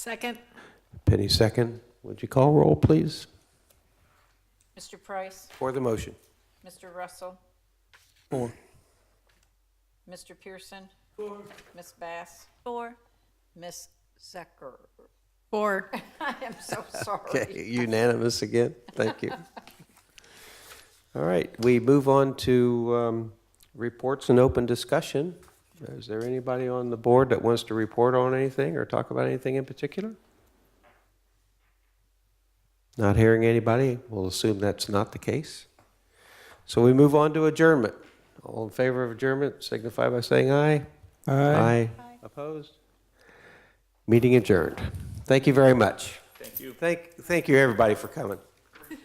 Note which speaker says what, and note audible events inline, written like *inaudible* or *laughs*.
Speaker 1: Second.
Speaker 2: Penny second. Would you call roll, please,
Speaker 1: Mr. Price,
Speaker 2: for the motion?
Speaker 1: Mr. Russell,
Speaker 2: Four.
Speaker 1: Mr. Pearson. Miss Bass,
Speaker 3: Four.
Speaker 1: Miss Zucker.
Speaker 3: Four.
Speaker 1: *laughs* I am so sorry.
Speaker 2: *laughs* Okay, unanimous again. Thank you. All right, we move on to um, reports and open discussion. Is there anybody on the board that wants to report on anything or talk about anything in particular? Not hearing anybody, we'll assume that's not the case. So we move on to adjournment. All in favor of adjournment signify by saying aye. Aye. Opposed? Meeting adjourned. Thank you very much. Thank you. Thank, thank you, everybody, for coming.